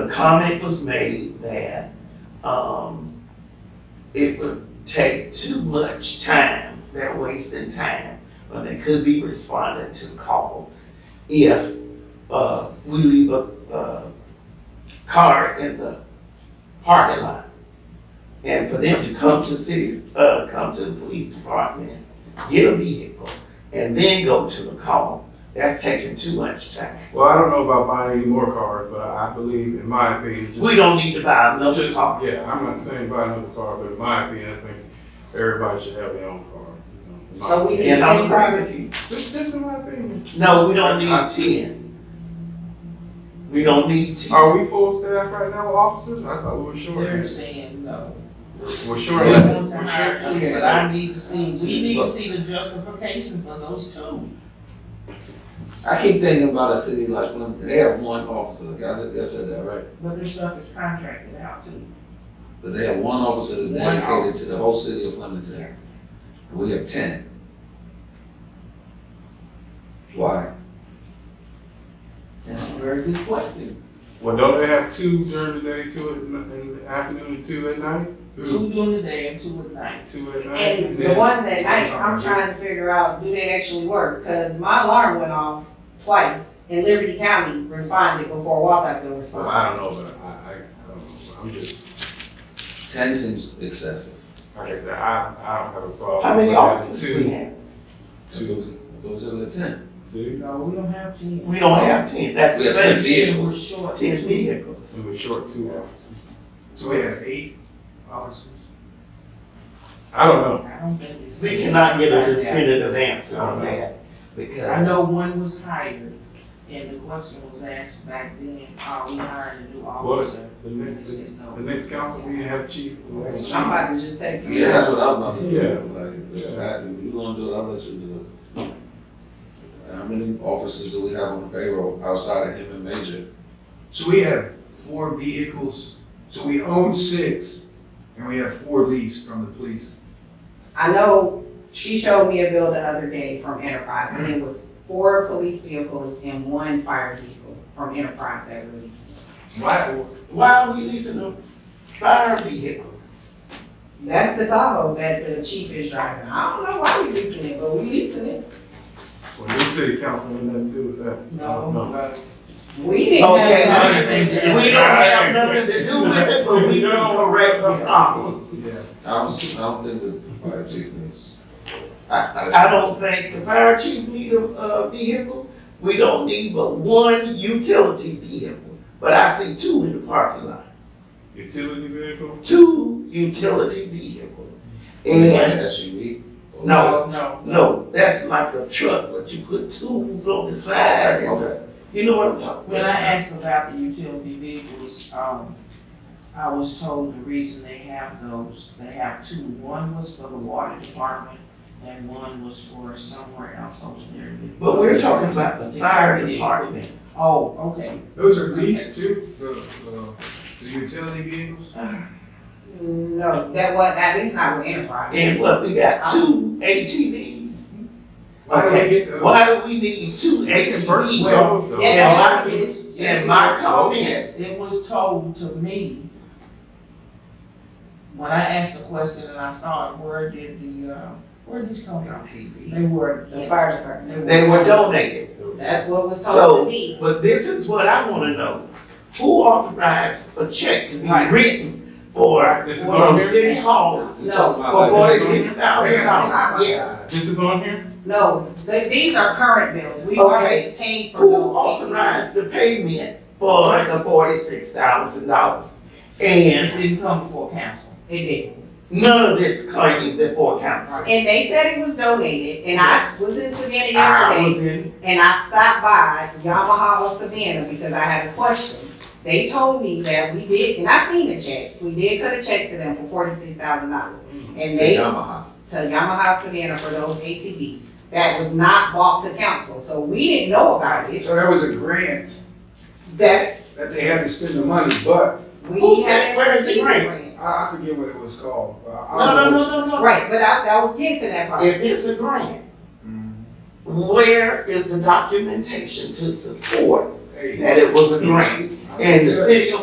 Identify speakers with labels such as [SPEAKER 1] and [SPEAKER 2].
[SPEAKER 1] The comment was made that, um, it would take too much time, they're wasting time, when they could be responding to calls if, uh, we leave a, uh, car in the parking lot. And for them to come to city, uh, come to the police department, get a vehicle, and then go to the call, that's taking too much time.
[SPEAKER 2] Well, I don't know about buying any more cars, but I believe, in my opinion, just,
[SPEAKER 1] We don't need to buy another
[SPEAKER 2] just-
[SPEAKER 1] car.
[SPEAKER 2] yeah, I'm not saying buy another car, but in my opinion, I think everybody should have their own car. you know, in my
[SPEAKER 3] So we
[SPEAKER 2] opinion.
[SPEAKER 3] need-
[SPEAKER 1] And I'm agree with you.
[SPEAKER 2] Just, just in my opinion.
[SPEAKER 1] No, we don't need ten. We don't need ten.
[SPEAKER 4] Oh,
[SPEAKER 2] Are we full staff right now with officers? I thought we were short.
[SPEAKER 3] They're saying no.
[SPEAKER 2] We're
[SPEAKER 3] They
[SPEAKER 2] short.
[SPEAKER 3] want to
[SPEAKER 2] We're
[SPEAKER 3] hire
[SPEAKER 2] short.
[SPEAKER 3] two, but I need to see, we need to see the justification for those two.
[SPEAKER 4] I keep thinking about a city like Flemington, they have one officer, I said, I said that right,
[SPEAKER 3] But their stuff is contracted out to.
[SPEAKER 4] but they have one officer that's
[SPEAKER 3] One
[SPEAKER 4] dedicated to
[SPEAKER 3] officer.
[SPEAKER 4] the whole city of Flemington. And We have ten. Why?
[SPEAKER 1] That's a very good question.
[SPEAKER 2] Well, don't they have two during the day, two at n- in the afternoon, and two at night?
[SPEAKER 1] Two during the day and two at night.
[SPEAKER 2] Two at night?
[SPEAKER 5] And the
[SPEAKER 2] then-
[SPEAKER 5] ones at night, I'm trying to figure out, do they actually work? Cause my alarm went off twice and Liberty County responded before Walthamville
[SPEAKER 2] Well,
[SPEAKER 5] responded.
[SPEAKER 2] I don't know, but I, I, I don't know. I'm just,
[SPEAKER 4] Ten seems excessive.
[SPEAKER 2] like I said, I, I don't have a problem.
[SPEAKER 1] How many
[SPEAKER 2] with having
[SPEAKER 1] officers
[SPEAKER 2] two-
[SPEAKER 1] we have?
[SPEAKER 2] Two,
[SPEAKER 4] Those are the ten.
[SPEAKER 2] two,
[SPEAKER 3] No, we don't have to.
[SPEAKER 1] We don't have ten, that's
[SPEAKER 4] We
[SPEAKER 1] the
[SPEAKER 4] have ten
[SPEAKER 1] thing,
[SPEAKER 4] vehicles.
[SPEAKER 3] We're short.
[SPEAKER 1] ten vehicles.
[SPEAKER 2] we were short two officers.
[SPEAKER 6] So we has eight officers?
[SPEAKER 2] I don't know.
[SPEAKER 3] I don't think it's.
[SPEAKER 1] We cannot get a definitive answer on
[SPEAKER 4] Uh-huh.
[SPEAKER 1] that, because.
[SPEAKER 3] I know one was hired, and the question was asked back then, are we hiring a new officer?
[SPEAKER 2] The
[SPEAKER 3] And they
[SPEAKER 2] next,
[SPEAKER 3] said no.
[SPEAKER 2] the next council meeting have chief. we'll have chief.
[SPEAKER 5] I'm about to just text.
[SPEAKER 4] Yeah, that's what I was about to
[SPEAKER 2] Yeah.
[SPEAKER 4] do, like, decide, if you gonna do it, I'll let you do it. How many officers do we have on the payroll outside of him and Major?
[SPEAKER 6] So we have four vehicles, so we own six, and we have four leased from the police.
[SPEAKER 5] I know she showed me a bill the other day from Enterprise and it was four police vehicles and one fire vehicle from Enterprise that released.
[SPEAKER 6] Why,
[SPEAKER 1] Why are we leasing a fire vehicle?
[SPEAKER 5] That's the Tahoe that the chief is driving. I don't know why we leasing it, but we leasing it.
[SPEAKER 2] Well, your city council had nothing to do with that.
[SPEAKER 3] No, no.
[SPEAKER 5] We didn't have.
[SPEAKER 1] Okay,
[SPEAKER 5] none of
[SPEAKER 1] I
[SPEAKER 3] think
[SPEAKER 5] that.
[SPEAKER 1] We don't have nothing to do with it, but we can correct the problem.
[SPEAKER 6] yeah,
[SPEAKER 4] I don't, I don't think the fire chief needs.
[SPEAKER 1] I don't think the fire chief need a, uh vehicle. We don't need but one utility vehicle, but I see two in the parking lot,
[SPEAKER 2] Utility vehicle?
[SPEAKER 1] two utility vehicles.
[SPEAKER 4] Like an
[SPEAKER 1] And,
[SPEAKER 4] SUV? or-
[SPEAKER 1] No.
[SPEAKER 3] No.
[SPEAKER 1] no, that's like a truck, but you put tools on the side, and-
[SPEAKER 4] Okay.
[SPEAKER 1] you know what I'm talking
[SPEAKER 3] When I
[SPEAKER 1] about?
[SPEAKER 3] asked about the utility vehicles, um, I was told the reason they have those, they have two. One was for the water department and one was for somewhere else over there.
[SPEAKER 1] But we're talking about the fire department.
[SPEAKER 3] Oh, okay.
[SPEAKER 6] those are leased too, the, the, the utility vehicles?
[SPEAKER 5] No, that was, at least not with Enterprise.
[SPEAKER 1] And what, we got two ATVs?
[SPEAKER 6] Why do we get those?
[SPEAKER 1] Why do we need two
[SPEAKER 2] They can purchase
[SPEAKER 1] ATVs?
[SPEAKER 2] those though.
[SPEAKER 1] Yeah.
[SPEAKER 5] Yeah, that's what it is.
[SPEAKER 1] And my comments,
[SPEAKER 3] It was told to me, when I asked the question and I saw it, where did the, uh, where did these come from? They were.
[SPEAKER 5] The fire department.
[SPEAKER 1] they were donated.
[SPEAKER 5] That's what was
[SPEAKER 1] So-
[SPEAKER 5] told to me.
[SPEAKER 1] But this is what I wanna know. Who authorized a check to be
[SPEAKER 3] Right.
[SPEAKER 1] written for,
[SPEAKER 2] This is on
[SPEAKER 1] for
[SPEAKER 2] here?
[SPEAKER 1] City Hall
[SPEAKER 4] We're talking
[SPEAKER 1] for
[SPEAKER 4] about like-
[SPEAKER 1] forty-six thousand dollars? Yes.
[SPEAKER 2] This is on here?
[SPEAKER 5] No, th- these are current bills. We already paid for those.
[SPEAKER 1] Who
[SPEAKER 5] 18.
[SPEAKER 1] authorized the payment for the forty-six thousand dollars? And
[SPEAKER 3] It didn't come before council.
[SPEAKER 5] It did.
[SPEAKER 1] none of this came before council.
[SPEAKER 5] And they said it was donated, and I was in Savannah
[SPEAKER 1] Ah, I was
[SPEAKER 5] yesterday,
[SPEAKER 1] in
[SPEAKER 5] and I stopped by Yamaha of Savannah because I had a question. They told me that we did, and I seen the check, we did cut a check to them for forty-six thousand dollars. And
[SPEAKER 4] Say
[SPEAKER 5] they
[SPEAKER 4] Yamaha.
[SPEAKER 5] to Yamaha Savannah for those ATVs. That was not bought to council, so we didn't know about it.
[SPEAKER 6] So that was a grant
[SPEAKER 5] That's,
[SPEAKER 6] that they had to spend the money, but
[SPEAKER 1] Who
[SPEAKER 5] we
[SPEAKER 1] said-
[SPEAKER 5] had
[SPEAKER 1] where is the grant?
[SPEAKER 6] I, I forget what it was called. but I
[SPEAKER 1] No, no,
[SPEAKER 6] don't know
[SPEAKER 1] no, no, no.
[SPEAKER 5] Right, but I, I was getting to that part.
[SPEAKER 1] If it's a grant,
[SPEAKER 6] Mm.
[SPEAKER 1] where is the documentation to support
[SPEAKER 6] Hey. Mm-hmm.
[SPEAKER 1] that it was a grant? And the city of